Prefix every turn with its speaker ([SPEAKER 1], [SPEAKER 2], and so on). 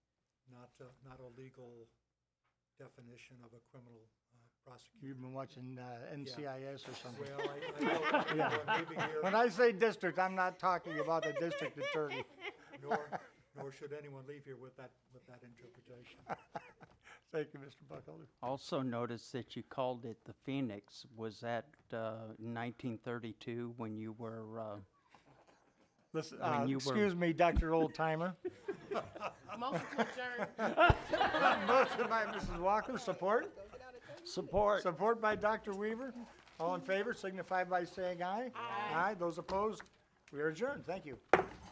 [SPEAKER 1] not, uh, not a legal definition of a criminal uh, prosecution.
[SPEAKER 2] You've been watching uh, NCIS or something.
[SPEAKER 1] Well, I, I know, I'm leaving
[SPEAKER 2] When
[SPEAKER 1] here,
[SPEAKER 2] I say district, I'm not talking about the district attorney.
[SPEAKER 1] nor, nor should anyone leave here with that, with that interpretation.
[SPEAKER 2] Thank you, Mr. Buckholder.
[SPEAKER 3] Also noticed that you called it the Phoenix. Was that uh, 1932 when you were, uh,
[SPEAKER 2] Listen,
[SPEAKER 3] When
[SPEAKER 2] uh,
[SPEAKER 3] you were-
[SPEAKER 2] excuse me, Dr. Oldtimer.
[SPEAKER 4] Motion to adjourn.
[SPEAKER 2] Motion by Mrs. Walker, support?
[SPEAKER 3] support?
[SPEAKER 2] Support by Dr. Weaver. All in favor signify by saying aye. Aye. Aye, those opposed, we are adjourned. Thank you.